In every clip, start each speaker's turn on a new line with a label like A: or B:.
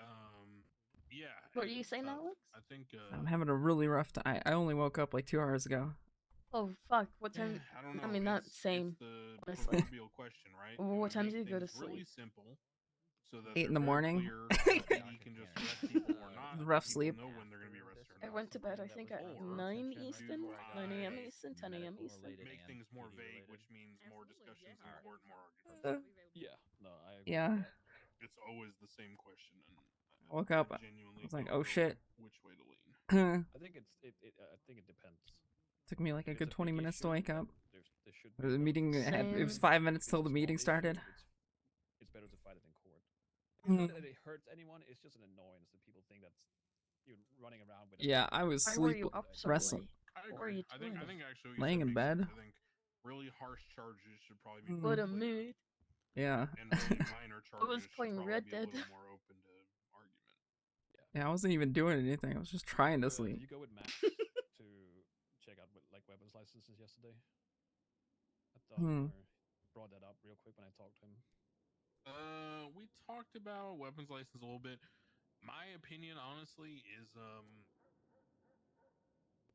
A: Um, Yeah.
B: What are
A: hey,
B: you saying,
A: uh,
B: Alex?
A: I think. Uh,
C: I'm having a really rough time. I only woke up like two hours ago.
B: Oh fuck! What time?
A: eh, I don't know.
B: I mean, not
A: it's-
B: same,
A: It's the
B: honestly.
A: proverbial question, right?
B: Well,
A: You
B: what
A: wanna
B: time do
A: make
B: you go to
A: things Really
B: sleep?
A: simple. So that
C: Eight in
A: they're
C: the
A: very
C: morning.
A: clear, so that you can just arrest people or
D: Uh,
A: not, and
C: Rough
A: people
C: sleep.
A: Know when they're gonna be arrested or
B: I
A: not.
B: went to bed. I think at
A: Or
B: nine
A: do
B: Eastern, nine a.m.
A: I
B: Eastern, ten a.m. Eastern.
A: Make things more vague, which means more discussions and more and more arguments.
C: Uh,
D: Yeah, no, I agree with
C: Yeah.
D: that.
A: It's always the same question. And I-
C: Woke up, I
A: genuinely
C: was like,
A: don't
C: "Oh,
A: know
C: shit."
A: Which way to lean?
C: Took
D: I think it's it, it. I think it depends.
C: me like a
D: If it's
C: good 20
D: big
C: minutes to
D: issue,
C: wake
D: then
C: up.
D: There's, there should
C: The
D: no
C: meeting had,
D: discussion.
C: it was
B: Same.
C: five minutes
D: If
C: till
D: it's
C: the
D: a
C: meeting
D: small
C: started.
D: issue, It's, it's better to fight it in court. It's
C: Mhm.
D: Not that it hurts anyone. It's just an annoyance that people think that's you're running around with. a
C: Yeah,
D: gun.
C: I was
B: Why were
C: sleep.
B: you up so late?
C: wrestling.
A: I
B: What were
A: agree.
B: you
A: I think I
B: doing?
A: think actually what you said
C: Laying in
A: makes sense.
C: bed?
A: I think really harsh charges should probably be.
C: Mm.
A: put
B: What a
A: in place.
B: mood!
C: Yeah,
A: and really minor charges.
B: was
A: should
B: playing
A: probably
B: Red
A: be a little
B: Dead.
A: More open to argument.
C: yeah. I wasn't even doing anything. I was just trying
D: Uh,
C: to
D: did
C: sleep.
D: You go with Max to check out with, like weapons licenses yesterday. I thought
C: Hmm.
D: you were- brought that up real quick when I talked to him.
A: Uh, we talked about weapons license a little bit. My opinion, honestly, is um,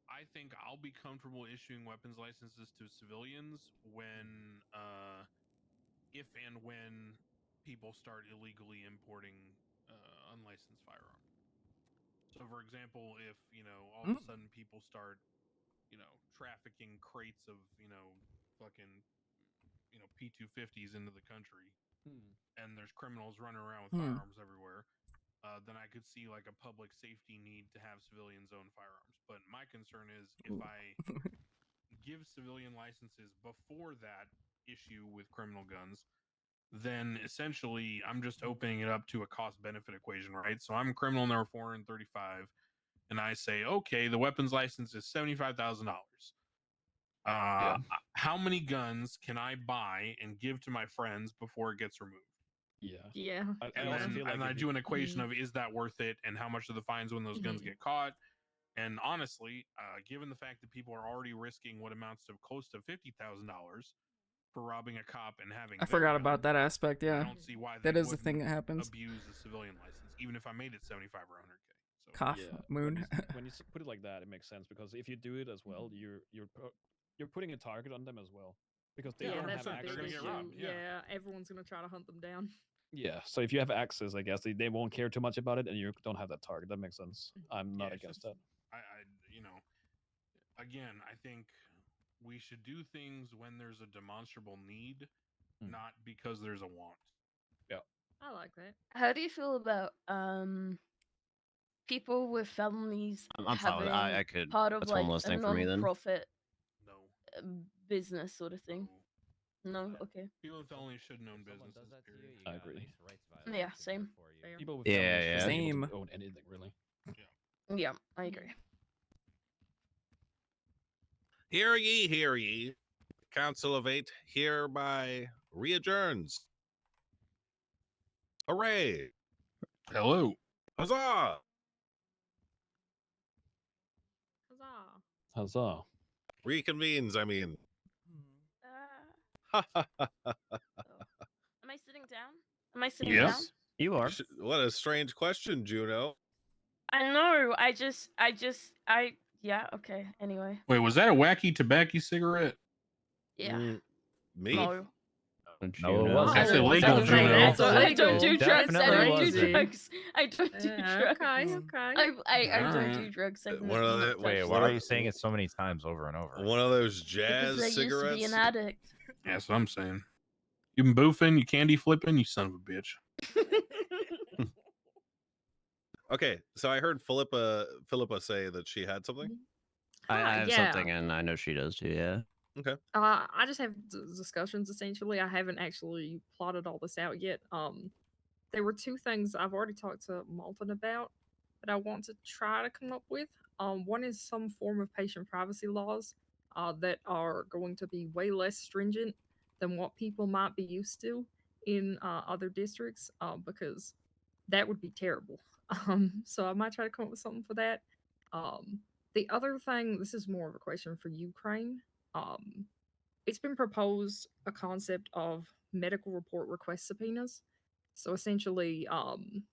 A: I think I'll be comfortable issuing weapons licenses to civilians when, uh, if and when people start illegally importing uh, unlicensed firearms. So, for example, if you know all of a sudden people start, you know, trafficking crates of you know, fucking, you know, P two fifties into the country, and there's criminals running around with
C: Hmm.
A: firearms everywhere, uh, then I could see like a public safety need to have civilians own firearms. But my concern is if
C: Ooh.
A: I give civilian licenses before that issue with criminal guns, then essentially I'm just opening it up to a cost benefit equation, right? So I'm criminal number 435, and I say, okay, the weapons license is $75,000. Uh, How many guns can I buy and give to my friends before it gets removed?
D: Yeah.
B: Yeah,
D: I,
A: and
D: I also
A: then
D: feel like
A: and I
D: if
A: do
D: you-
A: an equation
C: Mm-hmm.
A: of is that worth it and how much are the fines when those guns
B: Mhm.
A: get caught. And honestly, uh, given the fact that people are already risking what amounts to close to fifty thousand dollars for robbing a cop and having,
C: I
A: their
C: forgot
A: gun,
C: about that aspect.
A: I
C: Yeah,
A: don't see why
C: that
A: they
C: is the thing that
A: wouldn't
C: happens.
A: Abuse the civilian license, even if I made it seventy-five or hundred k. So
C: Cough,
D: Yeah, when you
C: moon.
D: s- when you s- put it like that, it makes sense because if you do it as
E: Hmm.
D: well, you're you're pu- you're putting a target on them as well because they
A: Yeah,
D: don't
A: that's
D: have
A: a
D: access.
A: big issue. robbed, yeah.
F: everyone's gonna try to hunt them down.
D: Yeah, so if you have access, I guess they, they won't care too much about it, and you don't have that target. That makes sense. I'm not
A: Yeah, it's
D: against
A: just- I, I, you know, again, I think we should do things when there's a demonstrable need,
C: Hmm.
D: Mm.
A: not because there's a want.
F: I like that.
B: How do you feel about um people with felonies
E: I'm, I'm fine with that. I,
B: having
E: I could.
B: part of
E: that's
B: like
E: one less
B: a
E: thing for me then.
B: non-profit
A: No.
B: uh, business sort of thing?
A: no.
B: No,
G: Uh,
B: okay.
A: People with felonies shouldn't own businesses. period.
D: I agree.
B: Yeah, same.
F: Fair.
D: that. People with
E: Yeah,
D: families
E: yeah.
D: shouldn't be able to
C: Same.
D: own anything really.
B: Yeah, I agree.
H: Hear ye, hear ye. The Council of Eight hereby readjourns. Hooray!
A: Hello.
H: Huzzah!
F: Huzzah.
D: Huzzah!
H: Reconvenes, I mean.
B: Uh,
H: what
B: am I sitting down? Am I sitting down?
A: Yes.
E: You are.
H: a strange question, Juno.
B: I know. I just, I just, I. Yeah. Okay. Anyway.
A: Wait, was that a wacky tobacco cigarette?
B: Yeah.
H: Mm, Me?
B: No.
E: No, it wasn't.
A: That's illegal,
B: That's the thing,
A: Juno.
B: that's what I
F: Illegal.
B: don't do drugs. I
E: Definitely
B: don't do
E: wasn't.
B: drugs. I don't do
F: Yeah,
B: drugs.
F: okay,
C: Mm.
F: okay.
B: I, I, I don't
A: Alright.
B: do drugs. I've
H: Uh, one
B: never
H: of the-
E: Wait,
B: touched
E: why
H: what
E: are
B: them.
E: you saying it so many times over and over?
H: One of those
B: Because I
H: jazz
B: used to be
H: cigarettes?
B: an addict.
A: Yeah, that's what I'm saying. You been boofing, you candy flipping, you son of a bitch.
H: Okay, so I heard Philippa Philippa say that she had something.
E: I, I
F: Ah,
E: have
F: yeah.
E: something, and I know she does too. Yeah.
F: Uh, I just have d- discussions essentially. I haven't actually plotted all this out yet. Um, there were two things I've already talked to Malton about that I want to try to come up with. Um, one is some form of patient privacy laws uh, that are going to be way less stringent than what people might be used to in uh, other districts uh, because that would be terrible. Um, so I might try to come up with something for that. Um, the other thing, this is more of a question for Ukraine. Um, it's been proposed a concept of medical report request subpoenas. So essentially, um,